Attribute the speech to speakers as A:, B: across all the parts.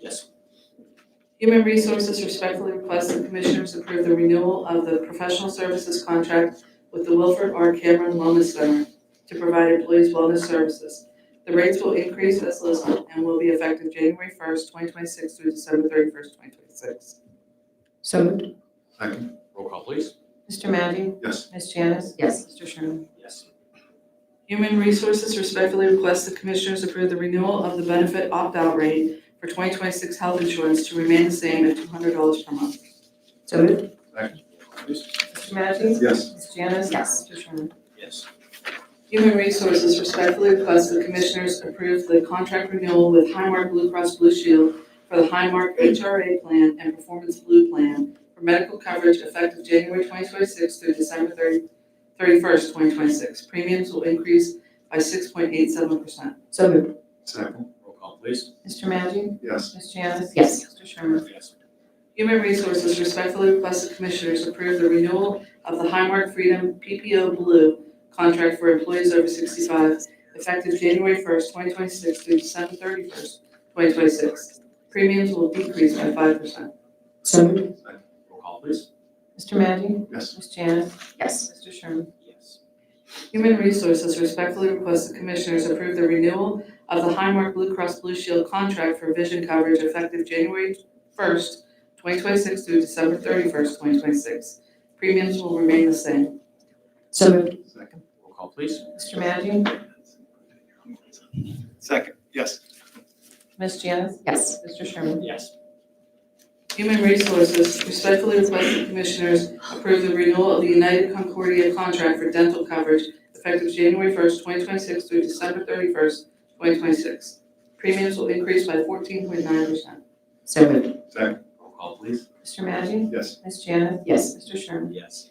A: Yes.
B: Human Resources respectfully requests the Commissioners approve the renewal of the professional services contract with the Wilfred R. Cameron Wellness Center to provide employees wellness services. The rates will increase as listed and will be effective January first, twenty twenty-six through December thirty-first, twenty twenty-six.
C: So moved.
A: Second. Roll call, please.
C: Mr. Maggi?
A: Yes.
C: Ms. Janice?
D: Yes.
C: Mr. Sherman?
A: Yes.
B: Human Resources respectfully requests the Commissioners approve the renewal of the benefit opt-out rate for twenty twenty-six health insurance to remain the same at two hundred dollars per month.
C: So moved.
A: Please.
C: Mr. Maggi?
A: Yes.
C: Ms. Janice?
D: Yes.
C: Mr. Sherman?
A: Yes.
B: Human Resources respectfully requests the Commissioners approve the contract renewal with Highmark Blue Cross Blue Shield for the Highmark HRA Plan and Performance Blue Plan for medical coverage effective January 2026 through December 30 31st, 2026. Premiums will increase by 6.87%.
C: So moved.
A: Second. Roll call, please.
C: Mr. Maggi?
A: Yes.
C: Ms. Janice?
D: Yes.
C: Mr. Sherman?
A: Yes.
B: Human Resources respectfully requests the Commissioners approve the renewal of the Highmark Freedom PPO Blue contract for employees over 65 effective January 1st, 2026 through December 31st, 2026. Premiums will decrease by 5%.
C: So moved.
A: Second. Roll call, please.
C: Mr. Maggi?
A: Yes.
C: Ms. Janice?
D: Yes.
C: Mr. Sherman?
A: Yes.
B: Human Resources respectfully requests the Commissioners approve the renewal of the Highmark Blue Cross Blue Shield contract for vision coverage effective January 1st, 2026 through December 31st, 2026. Premiums will remain the same.
C: So moved.
A: Second. Roll call, please.
C: Mr. Maggi?
E: Second, yes.
C: Ms. Janice?
D: Yes.
C: Mr. Sherman?
A: Yes.
B: Human Resources respectfully requests the Commissioners approve the renewal of the United Concordia contract for dental coverage effective January first, twenty twenty-six through December thirty-first, twenty twenty-six. Premiums will increase by fourteen point nine percent.
C: So moved.
A: Roll call, please.
C: Mr. Maggi?
E: Yes.
C: Ms. Janice?
D: Yes.
C: Mr. Sherman?
A: Yes.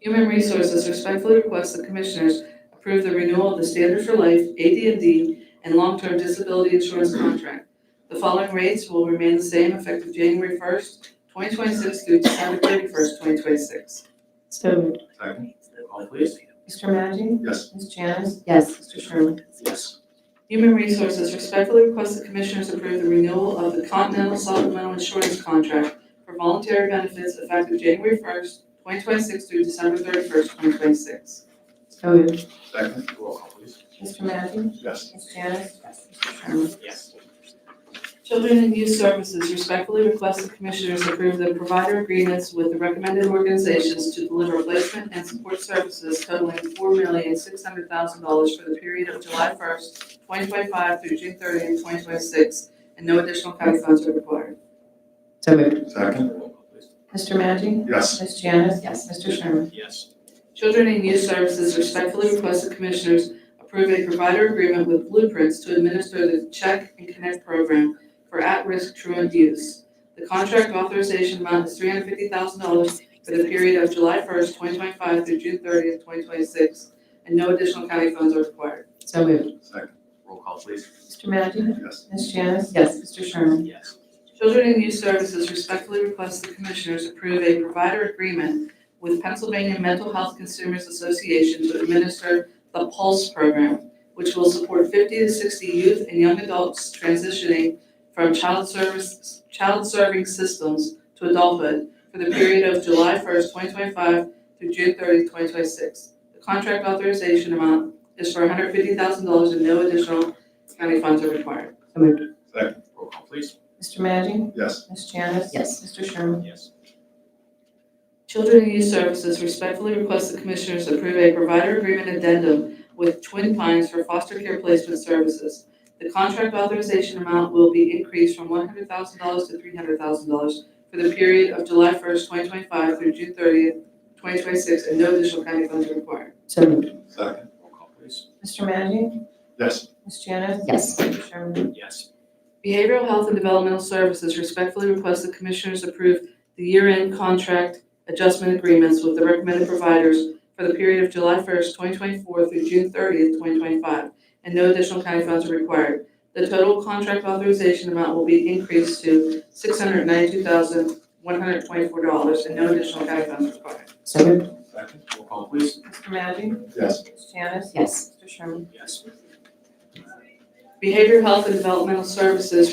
B: Human Resources respectfully requests the Commissioners approve the renewal of the Standard for Life, AD&D, and Long-Term Disability Insurance Contract. The following rates will remain the same effective January first, twenty twenty-six through December thirty-first, twenty twenty-six.
C: So moved.
A: Second. Roll call, please.
C: Mr. Maggi?
E: Yes.
C: Ms. Janice?
D: Yes.
C: Mr. Sherman?
A: Yes.
B: Human Resources respectfully requests the Commissioners approve the renewal of the Continental Supplemental Insurance Contract for voluntary benefits effective January first, twenty twenty-six through December thirty-first, twenty twenty-six.
C: So moved.
E: Second,
A: Roll call, please.
C: Mr. Maggi?
E: yes.
C: Ms. Janice? Mr. Sherman?
A: Yes.
B: Children and Youth Services respectfully requests the Commissioners approve the provider agreements with the recommended organizations to deliver placement and support services totaling four million six hundred thousand dollars for the period of July first, twenty twenty-five through June thirtieth, twenty twenty-six, and no additional county funds are required.
C: So moved.
E: Second,
A: Roll call, please.
C: Mr. Maggi?
E: yes.
C: Ms. Janice?
D: Yes.
C: Mr. Sherman?
A: Yes.
B: Children and Youth Services respectfully request the Commissioners approve a provider agreement with Blueprints to administer the Check and Connect program for at-risk truant youth. The contract authorization amount is three hundred fifty thousand dollars for the period of July first, twenty twenty-five through June thirtieth, twenty twenty-six, and no additional county funds are required.
C: So moved.
E: Second,
A: Roll call, please.
C: Mr. Maggi?
E: yes.
C: Ms. Janice?
D: Yes.
C: Mr. Sherman?
A: Yes.
B: Children and Youth Services respectfully request the Commissioners approve a provider agreement with Pennsylvania Mental Health Consumers Association to administer the Pulse Program, which will support fifty to sixty youth and young adults transitioning from child service, child serving systems to adulthood for the period of July first, twenty twenty-five through June thirtieth, twenty twenty-six. The contract authorization amount is for hundred fifty thousand dollars and no additional county funds are required.
A: Roll call, please.
C: Mr. Maggi?
E: Yes.
C: Ms. Janice?
D: Yes.
C: Mr. Sherman?
A: Yes.
B: Children and Youth Services respectfully request the Commissioners approve a provider agreement addendum with Twin Pines for foster care placement services. The contract authorization amount will be increased from one hundred thousand dollars to three hundred thousand dollars for the period of July first, twenty twenty-five through June thirtieth, twenty twenty-six, and no additional county funds are required.
C: So moved.
E: Second,
A: Roll call, please.
C: Mr. Maggi?
E: yes.
C: Ms. Janice?
D: Yes.
C: Mr. Sherman?
A: Yes.
B: Behavioral Health and Developmental Services respectfully request the Commissioners approve the year-end contract adjustment agreements with the recommended providers for the period of July first, twenty twenty-four through June thirtieth, twenty twenty-five, and no additional county funds are required. The total contract authorization amount will be increased to six hundred ninety-two thousand, one hundred twenty-four dollars, and no additional county funds required.
C: So moved.
E: Second,
A: Roll call, please.
C: Mr. Maggi?
E: yes.
C: Ms. Janice?
D: Yes.
C: Mr. Sherman?
A: Yes.
B: Behavioral Health and Developmental Services